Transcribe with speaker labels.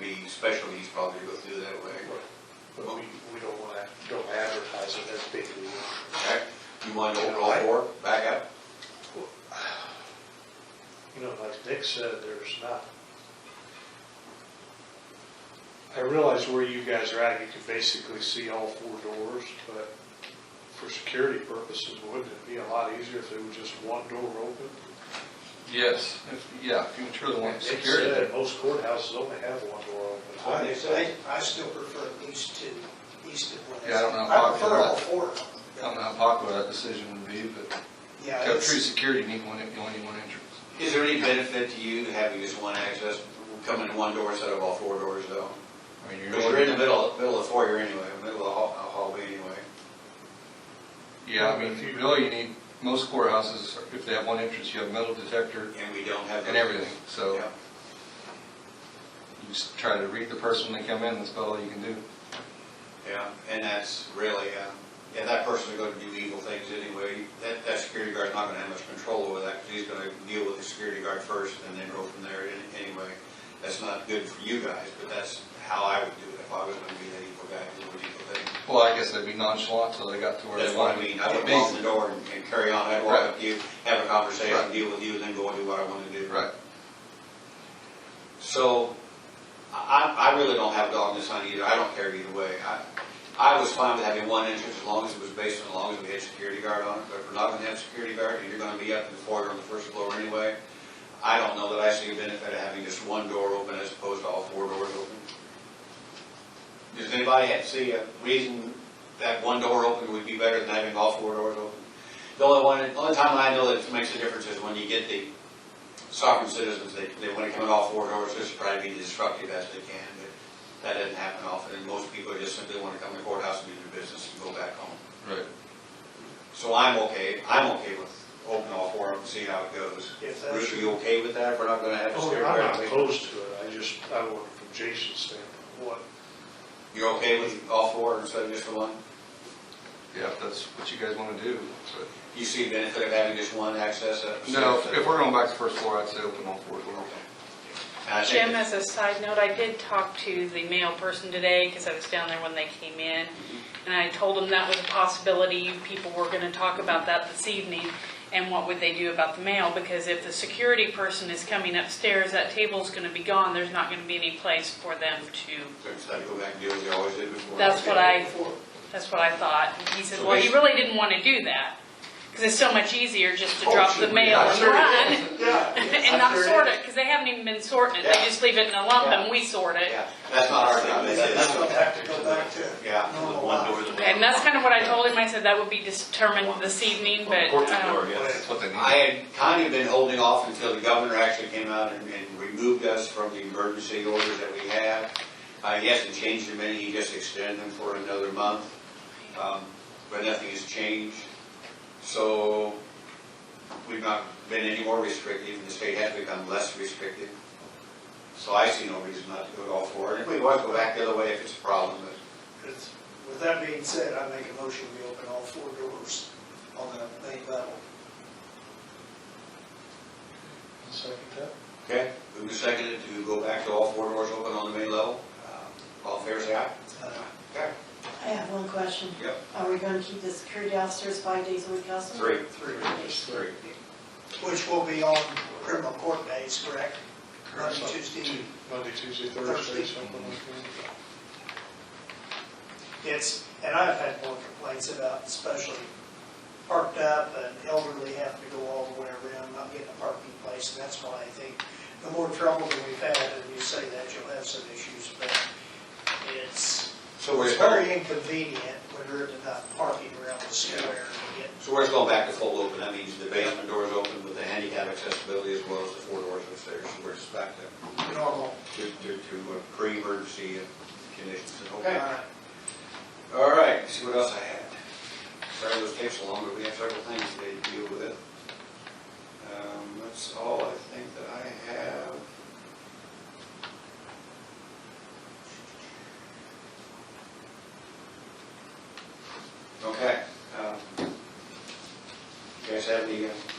Speaker 1: meeting, special needs probably go through that way.
Speaker 2: But we, we don't wanna, don't advertise it as big league.
Speaker 1: Okay, you want to open all four, back up?
Speaker 2: You know, like Nick said, there's not. I realize where you guys are at, you can basically see all four doors, but for security purposes, wouldn't it be a lot easier if there was just one door open?
Speaker 3: Yes, if, yeah, if you truly want
Speaker 2: Nick
Speaker 3: security.
Speaker 2: said most courthouses only have one door open.
Speaker 4: I, I- I still prefer these two, these two. ones.
Speaker 3: Yeah, I don't know how
Speaker 4: I prefer
Speaker 3: popular-
Speaker 4: all four of them.
Speaker 3: I don't know how popular that decision would be, but
Speaker 4: Yeah,
Speaker 3: to have
Speaker 4: it's-
Speaker 3: true security, you need one, you only need one entrance.
Speaker 1: Is there any benefit to you having just one access, coming in one door instead of all four doors though?
Speaker 3: I mean,
Speaker 1: Because you're in the middle, middle of the foyer anyway, middle of the hall- hallway anyway.
Speaker 3: Yeah, I mean, if you really, you need, most courthouses, if they have one entrance, you have metal detector
Speaker 1: And we don't have.
Speaker 3: and everything, so
Speaker 1: Yeah.
Speaker 3: you just try to read the person when they come in, that's about all you can do.
Speaker 1: Yeah, and that's really, um, yeah, that person's gonna do evil things anyway. That, that security guard's not gonna have much control over that, because he's gonna deal with the security guard first and then go from there Any- anyway. That's not good for you guys, but that's how I would do it if I was gonna be that evil guy who would evil things.
Speaker 3: Well, I guess they'd be nonchalant till they got to where
Speaker 1: That's
Speaker 3: they
Speaker 1: what
Speaker 3: want
Speaker 1: I
Speaker 3: to be.
Speaker 1: mean, I would lock the door and- and carry on, I'd walk up to you, have a conversation,
Speaker 3: Right.
Speaker 1: deal with you, and then go and do what I wanna do.
Speaker 3: Right,
Speaker 1: So, I, I I really don't have a dog in this hunt either, I don't care either way. I, I was fine with having one entrance as long as it was based on, as long as we had security guard on it, but if we're not gonna have security guard, and you're gonna be up in the foyer on the first floor anyway, I don't know that I see a benefit of having just one door open as opposed to all four doors open. Does anybody have- see a reason that one door open would be better than having all four doors open? The only one, the only time I know that it makes a difference is when you get the sovereign citizens, they, they want to come in all four doors, just try to be disruptive as they can, but that doesn't happen often, and most people just simply want to come to courthouse and do their business and go back home.
Speaker 3: right.
Speaker 1: So I'm okay, I'm okay with opening all four of them, see how it goes.
Speaker 4: If that's-
Speaker 1: Bruce, are you okay with that, we're not gonna have a
Speaker 2: Oh, I'm
Speaker 1: scare
Speaker 2: not
Speaker 1: guard?
Speaker 2: opposed to it, I just, I want from Jason's standpoint, what
Speaker 1: You're okay with all four instead of just the one?
Speaker 3: Yeah, if that's what you guys want to do, but.
Speaker 1: You see the benefit of having just one access? uh,
Speaker 3: No, if-
Speaker 1: so-
Speaker 3: if we're going back to first floor, I'd say open all four doors.
Speaker 1: And I think
Speaker 5: Jim, as a side note, I did talk to the mail person today because I was down there when they came in. And I told them that was a possibility. People were going to talk about that this evening. And what would they do about the mail? Because if the security person is coming upstairs, that table's going to be gone. There's not going to be any place for them to.
Speaker 1: So instead of go back and do what you always did before.
Speaker 5: That's what I, that's what I thought. And He said, well, he really didn't want to do that because it's so much easier just to
Speaker 1: Oh,
Speaker 5: drop
Speaker 1: sure.
Speaker 5: the mail
Speaker 1: Yeah,
Speaker 5: and
Speaker 1: sure it
Speaker 5: run.
Speaker 1: is.
Speaker 4: Yeah.
Speaker 5: And not sort it, because they haven't even been sorting it, they
Speaker 1: Yeah.
Speaker 5: just leave it in a lump
Speaker 1: Yeah.
Speaker 5: and we sort it.
Speaker 1: Yeah, that's not our job,
Speaker 4: They
Speaker 1: that's, that's
Speaker 4: still
Speaker 1: what
Speaker 4: have to go back to.
Speaker 1: Yeah, the
Speaker 4: normal
Speaker 1: one door.
Speaker 4: life.
Speaker 1: the-
Speaker 5: And that's kind of what I told him, I said that would be determined this evening, but, um,
Speaker 3: That's what they
Speaker 1: I
Speaker 3: need.
Speaker 1: had kind of been holding off until the governor actually came out and, and removed us from the emergency orders that we had. Uh, he hasn't changed them any, he just extended them for another month. Um, but nothing has changed. So we've not been any more restrictive, and the state has become less restrictive. So I see no reason not to go all for it. If we want to go back the other way, if it's a problem, but
Speaker 4: It's- With that being said, I make a motion, we open all four doors on the main level.
Speaker 2: second that?
Speaker 1: Okay, moving seconded to go back to all four doors open on the main level. Uh, All in favor, say aye.
Speaker 4: Uh,
Speaker 1: Okay.
Speaker 6: I have one question.
Speaker 1: Yep.
Speaker 6: Are we gonna keep the security officers five days a week also?
Speaker 1: Three.
Speaker 4: Three.
Speaker 1: Three.
Speaker 4: Which will be on criminal court days, correct? Monday,
Speaker 2: Correct.
Speaker 4: Tuesday.
Speaker 2: Monday, Tuesday,
Speaker 4: Thursday.
Speaker 2: Thursday, something like that.
Speaker 4: It's, and I've had more complaints about especially parked up and elderly having to go all the way around, not getting a parking place. And that's why I think the more trouble that we've had, and you say that, you'll have some issues, but it's,
Speaker 1: So we're,
Speaker 4: it's
Speaker 1: so
Speaker 4: very inconvenient when there isn't enough parking around the square to get
Speaker 1: we're just going back to full open. That means the basement door is open with the handicap accessibility as well as the four doors upstairs. So we're just back to,
Speaker 4: normal.
Speaker 1: to, to, to uh, pre-emergency uh, conditions.
Speaker 4: Uh,
Speaker 1: All right, see what else I had. Sorry those takes so long, but we have several things today to deal with. Um, that's all I think that I have. Okay, um, you guys have any uh,